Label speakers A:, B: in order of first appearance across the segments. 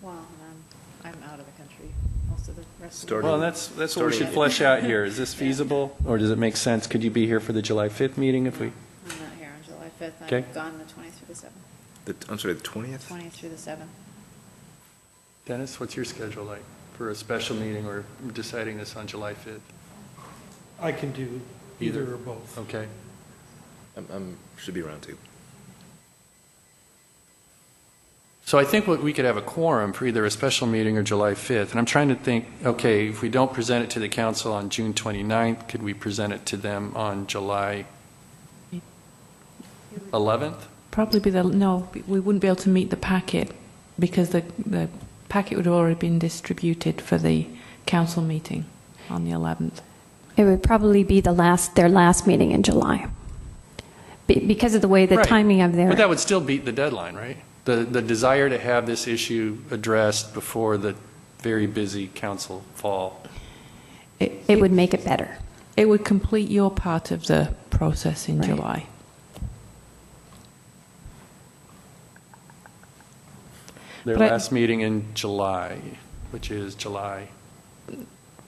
A: Well, I'm, I'm out of the country most of the rest of the.
B: Starting-
A: year.
C: Well, that's, that's what we should
B: Starting-
C: flesh out here. Is this feasible, or does it make sense? Could you be here for the July 5th meeting if we?
A: I'm not here on July 5th.
C: Okay.
A: I'm gone the 20th through the 7th,
B: The, I'm sorry, the twentieth?
A: 20th through the 7th.
C: Dennis, what's your schedule like for a special meeting or deciding this on July 5th?
D: I can do either or both.
C: Okay.
B: I'm, I'm, should be around too.
C: So I think what we could have a quorum for either a special meeting or July 5th. And I'm trying to think, okay, if we don't present it to the council on June 29th, could we present it to them on July 11th?
E: Probably be the, no, we wouldn't be able to meet the packet because the, the packet would have already been distributed for the council meeting on the 11th.
F: It would probably be the last, their last meeting in July, Be- because of the way the
C: Right.
F: timing of
C: But that
F: their,
C: would still beat the deadline, right? The, the desire to have this issue addressed before the very busy council fall.
F: it would make it better.
E: It would complete your part of the process in
F: Right.
E: July.
C: Their
E: But I-
C: last meeting in July, which is July,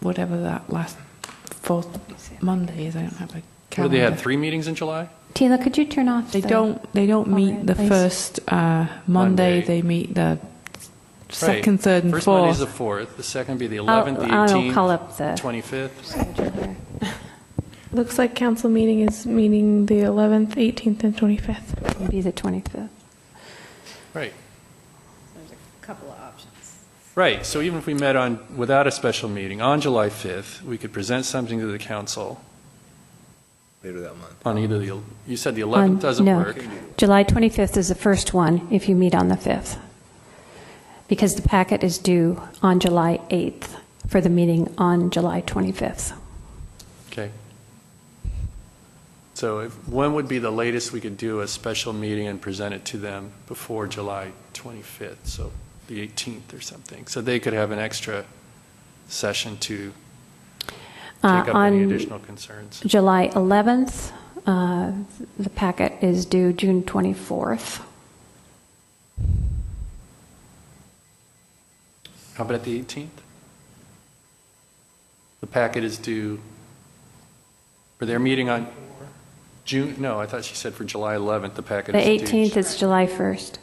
E: Whatever that last fourth Monday is, I don't have a
C: what, do
E: calendar.
C: they had three meetings in July?
F: Tina, could you turn off
E: They
F: the?
E: don't, they don't meet
F: Alright,
E: the
F: please.
E: first uh, Monday,
C: Monday.
E: they meet the second,
C: Right.
E: third, and
C: First Monday's the
E: fourth.
C: 4th, the second be the
F: I'll-
C: 11th, the
F: I'll
C: 18th.
F: call up the-
C: 25th.
F: schedule there.
G: Looks like council meeting is meeting the 11th, 18th, and 25th.
F: It'd Be the 25th.
C: Right,
A: There's a couple of options.
C: right. So even if we met on, without a special meeting, on July 5th, we could present something to the council
B: Later that month.
C: on either the, el- you said the
F: On-
C: 11th doesn't
F: Um, no.
C: work.
F: July 25th is the first one, if you meet on the 5th, because the packet is due on July 8th for the meeting on July 25th.
C: Okay. So if- when would be the latest we could do a special meeting and present it to them before July 25th? So the 18th or something? So they could have an extra session to
F: Uh,
C: take up any
F: on-
C: additional concerns?
F: July 11th, uh, the packet is due June 24th.
C: How about the 18th? The packet is due for their meeting on June, no, I thought she said for July 11th, the
F: The
C: packet is due.
F: 18th is July 1st.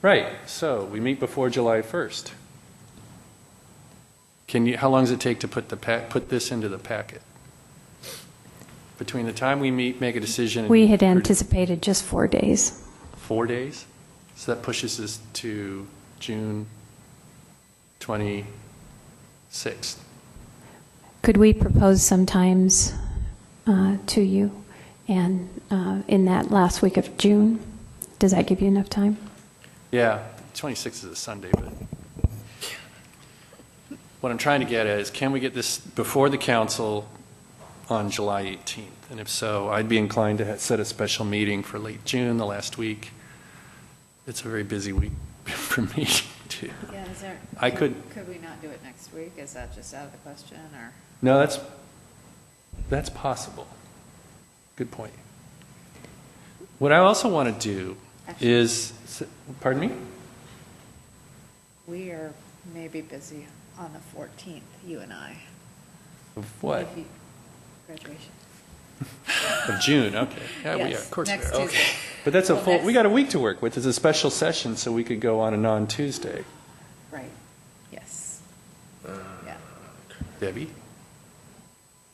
C: Right, so we meet before July 1st. Can you, how long does it take to put the, pa- put this into the packet? Between the time we meet, make a decision? and-
F: We had anticipated just four days.
C: Four days? So that pushes us to June 26th.
F: Could we propose sometimes uh, to you and uh, in that last week of June? Does that give you enough time?
C: Yeah, 26th is a Sunday, but what I'm trying to get at is, can we get this before the council on July 18th? And if so, I'd be inclined to ha- set a special meeting for late June, the last week. It's a very busy week for me, too.
A: Yeah, is there?
C: I could-
A: Could we not do it next week? Is that just out of the question or?
C: No, that's, that's possible. Good point. What I also want to do
A: Actually-
C: is, pardon me?
A: We are maybe busy on the 14th, you and I.
C: Of What?
A: If you- Graduation.
C: Of June, okay. Yeah, we are,
A: Yes,
C: of course we
A: next
C: are. Okay.
A: Tuesday.
C: But that's a
A: Well,
C: full,
A: next-
C: we got a week to work with. It's a special session, so we could go on and on Tuesday.
A: Right, yes. Yeah.
C: Debbie?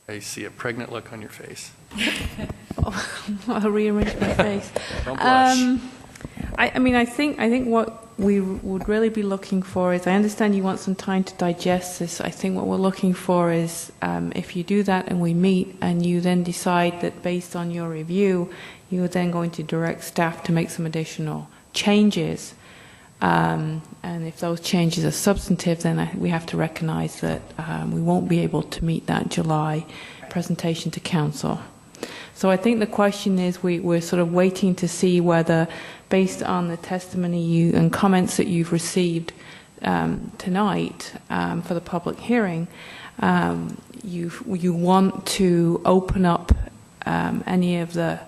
C: I see a pregnant look on your face.
E: I'll rearrange my face.
C: Don't blush.
E: Um, I, I mean, I think I think what we would really be looking for is. I understand you want some time to digest this. I think what we're looking for is um, if you do that and we meet, and you then decide that based on your review, you're then going to direct staff to make some additional changes. Um, and if those changes are substantive, then I, we have to recognise that um, we won't be able to meet that July presentation to council. So I think the question is we, we're sort of waiting to see whether, based on the testimony you and comments that you've received um, tonight um, for the public hearing, um, you you want to open up um, any of the